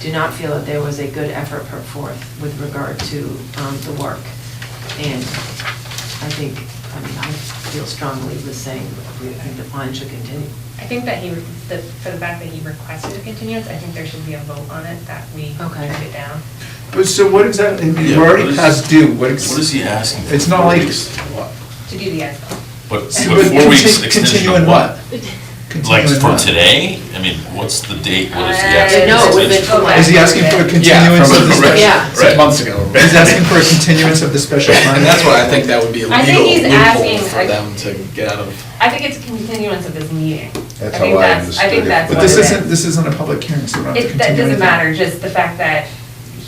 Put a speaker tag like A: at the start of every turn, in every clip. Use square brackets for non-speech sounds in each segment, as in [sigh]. A: do not feel that there was a good effort put forth with regard to um, the work. And I think, I mean, I feel strongly with saying we think the bond should continue.
B: I think that he, the- for the fact that he requested a continuance, I think there should be a vote on it, that we
A: Okay.
B: turned it down.
C: But so what exactly,
D: Yeah,
C: you
D: what
C: already
D: is-
C: past due, what? ex-
D: What is he asking? for?
C: It's not
D: Four
C: like.
D: weeks?
B: To do the as-built.
D: But
B: [laughs]
D: but
C: See, but
D: four weeks
C: conti-
D: extension
C: continue in
D: of what? Like
C: Continue in
D: for
C: what?
D: today? I mean, what's the date? What is he
B: Uh,
D: asking?
B: no,
D: for
B: it would've
D: extension?
B: been-
C: Is he asking for a continuance
D: from
C: of the
D: a- right,
C: special?
A: Yeah.
D: right.
C: Months ago. He's asking for a continuance of the
D: [laughs]
C: special permit?
E: [laughs] And that's why I think that would be a
B: I think he's
E: legal
B: asking,
E: loophole for
B: like-
E: them to get out of.
B: I think it's a continuance of this meeting.
F: That's
B: think
F: how I
B: I think
F: understood it.
B: that's
C: But
B: what
C: this
B: it
C: isn't, this isn't a public hearing, so we don't have
B: It,
C: to continue.
B: that doesn't
C: anything.
B: matter, just the fact that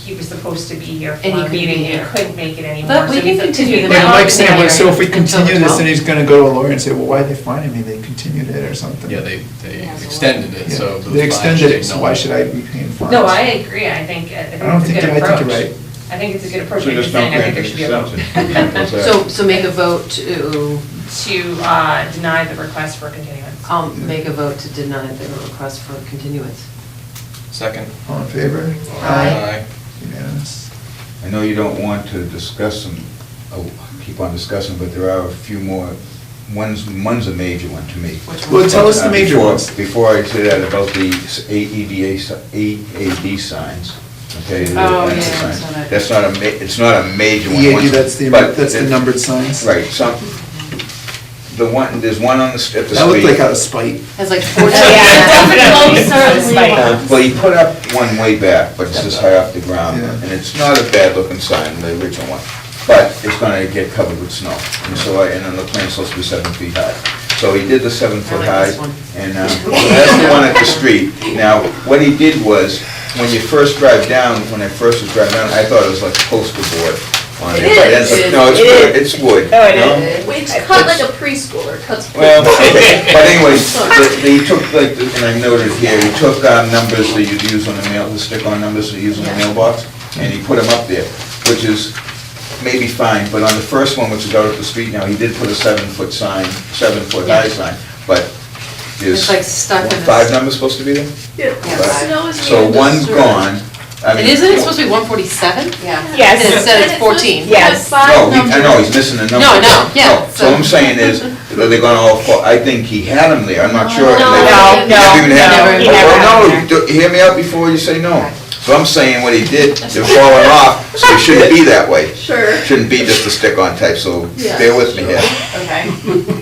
B: he was supposed to be here for
A: And he
B: a
A: couldn't be
B: meeting
A: here.
B: and couldn't make it anymore.
A: But we
B: so he's
A: can
B: up to
A: continue
B: you.
A: the
C: Like
A: matter.
C: Mike's saying, like, so if we
A: Until the
C: continue this, then
A: 12th.
C: he's gonna go to a lawyer and say, well, why'd they fine me? They continued it or something.
E: Yeah, they, they extended it,
C: Yeah.
E: so.
C: They extended it, so why should I be paying fines?
B: No, I agree, I think, uh, I
C: I don't
B: think it's
C: think
B: a good
C: you're-
B: approach.
C: I think you're right.
B: I think it's a good approach,
F: So
B: I'm
F: just
B: just
F: don't
B: saying, I think
F: grant the
B: there should be a vote. [laughs]
F: extension.
A: So, so make a vote to,
B: To, uh, deny the request for continuance.
A: I'll um, make a vote to deny the request for continuance.
E: Second.
C: All in favor?
A: Aye.
C: Unanimous.
F: I know you don't want to discuss them, oh, keep on discussing, but there are a few more. One's, one's a major one to me.
A: Which one? Well,
C: tell us the
F: Uh,
C: major
F: before-
C: ones.
F: Before I say that, about the s- AEDA, si- AAD signs, okay? the
A: Oh,
F: advanced
A: yeah, I
F: signs.
A: saw that.
F: That's not a, ma- it's not a major one.
C: Yeah,
F: once-
C: E, that's the,
F: but
C: that's the
F: it-
C: numbered signs.
F: Right, some, the one, there's one on the, s- at the street.
C: That looked like out of spite.
A: Has
C: [laughs]
A: like
B: [laughs]
A: 14. [laughs]
B: definitely,
F: Uh, Well, he put up one way back, but it's just high off the ground,
C: Yeah.
F: and it's not a bad-looking sign, the original one, but it's gonna get covered with snow, and so, I- and then the plant's supposed to be seven feet high. So he did the seven
A: I
F: foot
A: like
F: high,
A: this one.
F: and, uh, so that's the one at the street. Now, what he did was, when you first drive down, when I first was driving down, I thought it was like poster board on it.
G: It
F: but it's-
A: is.
F: No, it's
G: It
F: wood,
G: is.
F: it's wood.
B: Oh, it
F: you know?
B: is.
G: It's cut like a preschooler cuts.
F: Well, [laughs] okay, but
A: [laughs]
F: anyways, the- they took, like, and I noted here, he took uh, numbers that you'd use on the mail, the stick-on numbers that you use on the mailbox, and he put them up there, which is maybe fine, but on the first one, which is out at the street now, he did put a seven-foot sign, seven-foot high sign, but
A: It's
F: there's...
A: like stuck in this-
F: Five numbers supposed to be there?
A: Yes.
G: Snow is
F: So
G: being
F: one's
G: disturbed.
F: gone. I mean-
A: And isn't it supposed to be 147?
G: Yeah.
B: Yes.
A: And it said it's 14.
B: Yeah.
G: Yes.
F: No, he- I know, he's missing a number.
A: No, no, yeah,
F: No, So
A: so-
F: I'm saying is, that they're gonna all, fall- I think he had them there, I'm not sure. if they-
G: No,
F: if they
G: no,
F: even
A: no,
F: had 'em.
A: he
B: never had
F: Well,
B: 'em
F: no, do- hear me out before you say no. So I'm saying what he did, they're falling off, so it shouldn't be that way.
G: Sure.
F: Shouldn't be just a stick-on type, so
G: Yeah.
F: bear with me here.
G: Okay.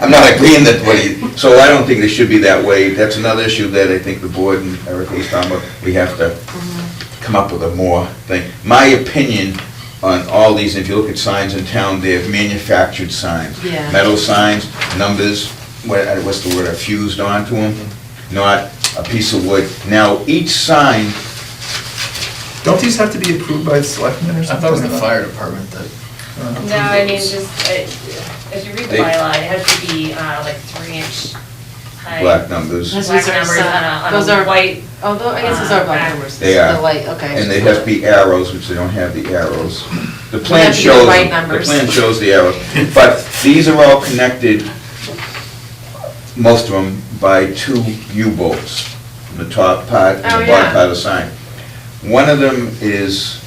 F: I'm not agreeing that what he, so I don't think it should be that way. That's another issue that I think the board and Erica was talking about, we have to come up with a more thing. My opinion on all these, if you look at signs in town, they have manufactured signs.
A: Yeah.
F: Metal signs, numbers, what, uh, what's the word, are fused onto them, not a piece of wood. Now, each sign,
C: Don't these have to be approved by the selectmen or
E: I
C: something?
E: thought it was the fire department that.
C: Uh,
B: No, I mean, just, uh, if you read the
F: They-
B: bylaw, it has to be uh, like three inch high.
F: black numbers,
A: Those
B: Black
A: are
B: numbers
A: some-
B: on a,
A: those
B: on
A: are-
B: a white,
A: Although, I guess those are black numbers.
F: They
A: This is
F: are.
A: The light, okay.
F: and they have to be arrows, which they don't have the arrows. The plan
A: have to be the
F: shows,
A: right
F: the
A: numbers.
F: plan shows the arrows, but these are all connected, most of them, by two U-bolts, from the top part and
A: Oh,
F: the
A: yeah.
F: bottom part of the sign. One of them is,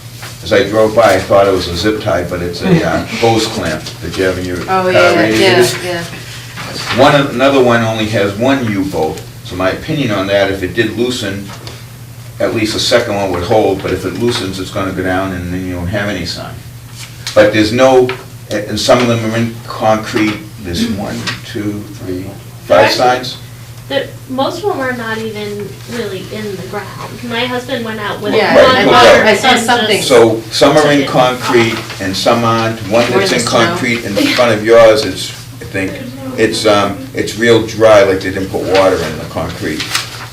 F: as I drove by, I thought it was a zip tie, but it's a uh, hose clamp that you have in your car
A: Oh, yeah, yeah,
F: radiators.
A: yeah.
F: One, another one only has one U-bolt, so my opinion on that, if it did loosen, at least the second one would hold, but if it loosens, it's gonna go down and then you don't have any sign. But there's no, eh, and some of them are in concrete, there's one, two, three, five signs.
H: The, most of them are not even really in the ground. My husband went out with
A: Yeah,
F: I
H: one
F: know
H: motor
F: that.
H: and
A: I saw something.
H: just,
F: So some are in concrete and some aren't, one that's in concrete in front of yours is, I think, it's, um, it's real dry, like they didn't put water in the concrete.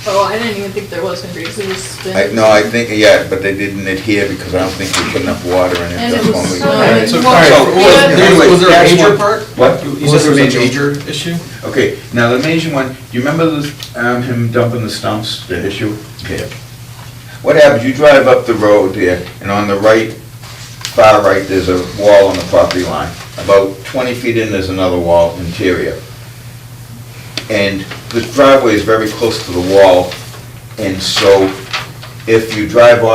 G: Oh, I didn't even think there was gonna be, 'cause it was been-
F: I, no, I think, yeah, but they didn't adhere because I don't think we put enough water in it.
G: And it
F: That's
G: was
F: one we-
G: so-
F: Alright,
E: So,
F: so-
E: all right,
F: so,
E: was-
F: yeah,
E: there-
F: anyway,
E: was there a
F: that's
E: major
F: one-
E: part?
F: What?
E: You
F: You
E: said there
F: said
E: was a major issue?
F: Okay, now the major one, do you remember the, um, him dumping the stumps, the issue? Yeah. What happens, you drive up the road there, and on the right, far right, there's a wall on the property line. About twenty feet in, there's another wall interior. And the driveway is very close to the wall, and so if you drive off.